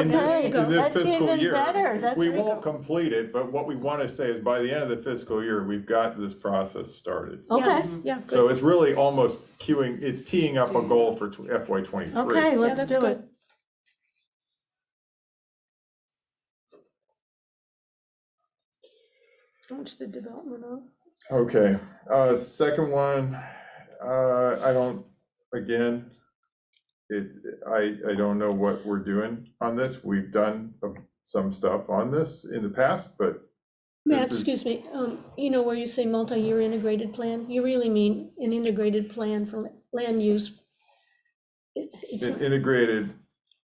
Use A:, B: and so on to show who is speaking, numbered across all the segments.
A: in
B: Okay,
A: this, in this
B: that's
A: fiscal
B: even
A: year.
B: better. That's
A: We
B: even-
A: won't complete it, but what we want to say is by the end of the fiscal year, we've got this process started.
B: Okay,
C: Yeah, good.
A: So it's really almost queuing, it's teeing up a goal for FY twenty-three.
B: okay,
C: Yeah,
B: let's
C: that's
B: do
C: good.
B: it.
C: Launch the development of.
A: Okay, uh, second one, uh, I don't, again, it, I, I don't know what we're doing on this. We've done some stuff on this in the past, but
D: Matt,
A: This is-
D: excuse me, um, you know where you say multi-year integrated plan, you really mean an integrated plan for land use? It- It's,
A: an
D: not-
A: integrated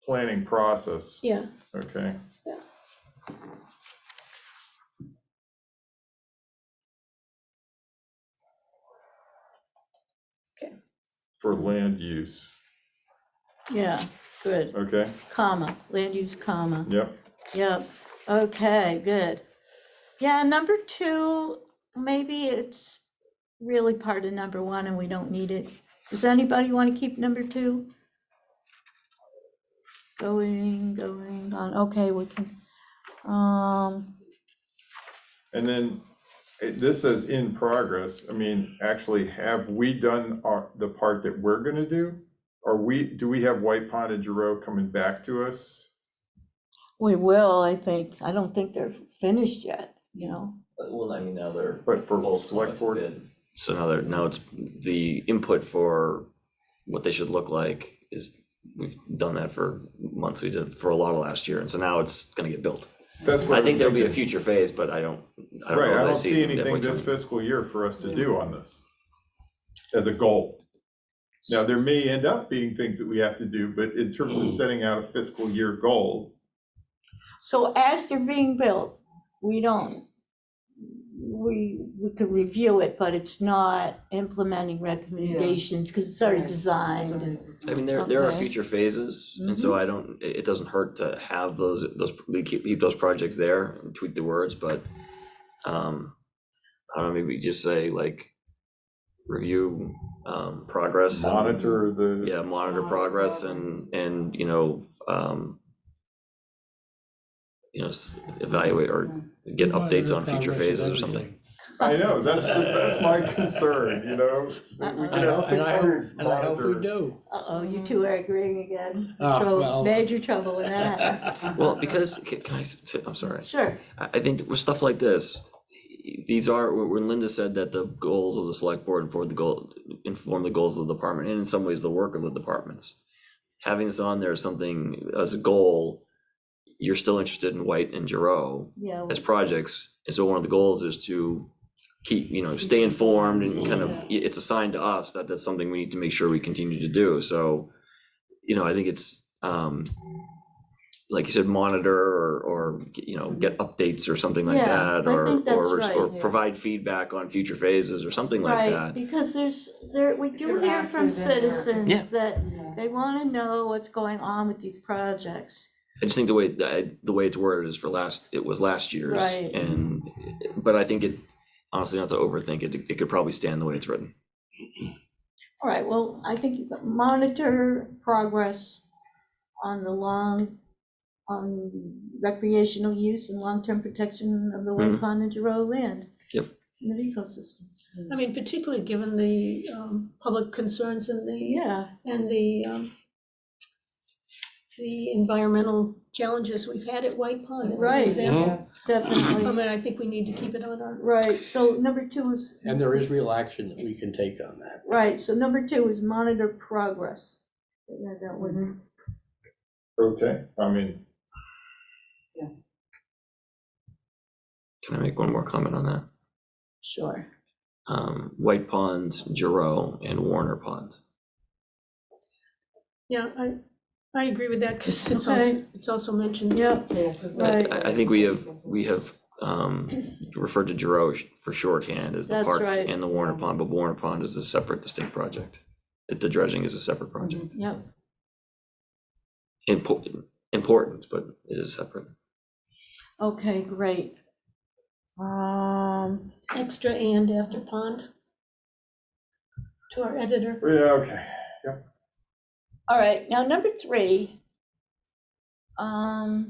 A: planning process,
D: yeah,
A: okay?
D: Yeah.
C: Okay.
A: For land use,
B: Yeah, good.
A: okay,
B: Comma, land use comma.
A: yep,
B: Yep, okay, good. Yeah, number two, maybe it's really part of number one and we don't need it. Does anybody want to keep number two? Going, going on, okay, we can, um,
A: and then it- this says in progress, I mean, actually, have we done our, the part that we're gonna do? Are we, do we have White Pond and Giroux coming back to us?
B: we will, I think. I don't think they're finished yet, you know?
E: But, Uh, Well, I mean, now they're.
A: But for
E: both
A: select board?
E: selected. So now they're, now it's the input for what they should look like is, we've done that for months, we did for a lot of last year, and so now it's gonna get built.
A: That's what
E: I
A: was
E: think there'll be a
A: thinking.
E: future phase, but I don't, I don't
A: Right, I
E: know that I
A: don't
E: see
A: see
E: it in
A: anything this
E: FY
A: fiscal year for us to do on this as a goal. Now, there may end up being things that we have to do, but in terms of setting out a fiscal year goal,
B: So as they're being built, we don't, we, we could review it, but it's not implementing recommendations because it's already
F: Right.
B: designed. and-
E: I mean, there, there are
B: Okay.
E: future phases, and so I don't, it, it doesn't hurt to have those, those, we keep, keep those projects there and tweak the words, but, um, I don't know, maybe just say like, review, um, progress. and-
A: monitor the,
E: Yeah, monitor progress and, and, you know, um, you know, s- evaluate or get updates on future phases or something.
A: I know, that's, that's my concern, you know? that we
G: Uh-uh. And
A: can have
G: I, and I hope,
A: 600
G: and I hope we
A: monitor-
G: do.
B: Uh-oh, you two are agreeing again.
G: Ah,
B: Trouble,
G: well.
B: major trouble when that happens.
E: Well, because, can can I, s- t- I'm sorry.
B: Sure,
E: I, I think with stuff like this, these are, when Linda said that the goals of the select board inform the goal, inform the goals of the department, and in some ways the work of the departments. Having this on there as something, as a goal, you're still interested in White and Giroux
B: yeah,
E: as projects, and so one of the goals is to keep, you know, stay informed and kind of, i- it's a sign to us that that's something we need to make sure we continue to do, so. You know, I think it's, um, like you said, monitor or, or, you know, get updates or something like
B: Yeah,
E: that,
B: I
E: or,
B: think that's
E: or, or
B: right,
F: yeah.
E: provide feedback on future phases or something like
B: right,
E: that.
B: because there's, there, we do
F: They're
B: hear from
F: active in their-
E: Yeah.
B: citizens that
F: Yeah.
B: they want to know what's going on with these projects.
E: I just think the way, I- the way it's worded is for last, it was last year's,
B: Right.
E: and, but I think it, honestly, not to overthink it, it could probably stand the way it's written.
B: All right, well, I think you monitor progress on the long, on recreational use and long-term protection of the Wake
E: Mhm.
B: Pond and Giroux land.
E: Yep.
B: And the ecosystems.
D: I mean, particularly given the, um, public concerns and the,
B: Yeah,
D: and the, um, the environmental challenges we've had at White Pond as an
B: Right.
D: example. I
B: definitely.
D: mean, I think we need to keep it on our,
B: Right, so number two is.
G: And there is real action that we can take on that.
B: Right, so number two is monitor progress. Yeah, that one.
A: Okay, I mean,
E: Can I make one more comment on that?
B: Sure.
E: um, White Ponds, Giroux, and Warner Pond.
D: yeah, I, I agree with that, because it's also,
B: Okay.
D: it's also mentioned.
B: Yep,
F: Yeah, 'cause-
E: I,
B: Right.
E: I- I think we have, we have, um, referred to Giroux sh- for shorthand as the
B: That's
E: park
B: right.
E: and the Warner Pond, but Warner Pond is a separate distinct project. It- The dredging is a separate project.
B: yep. Mm-hmm.
E: Important, important, but it is separate.
B: Okay, great. Um,
D: Extra and after pond. To our editor.
A: yeah, okay.
B: all right, now number three. Um,